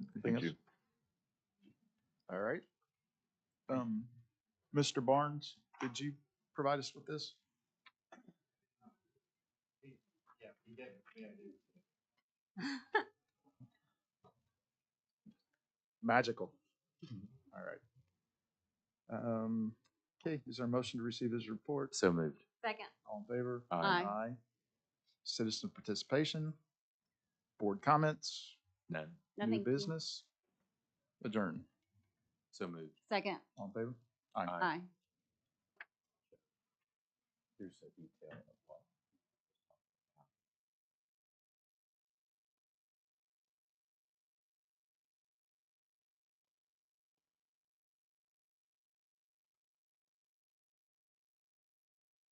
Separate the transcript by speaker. Speaker 1: Anything
Speaker 2: Thank
Speaker 1: else? All right. Um, Mr. Barnes, did you provide us with this? Magical. All right. Um, okay, is there a motion to receive his report?
Speaker 2: So moved.
Speaker 3: Second.
Speaker 1: All in favor?
Speaker 3: Aye.
Speaker 1: Citizen participation, board comments,
Speaker 2: None.
Speaker 1: new
Speaker 3: Nothing.
Speaker 1: business, adjourn.
Speaker 2: So moved.
Speaker 3: Second.
Speaker 1: All in favor?
Speaker 2: Aye.
Speaker 3: Aye.
Speaker 2: Here's the detail of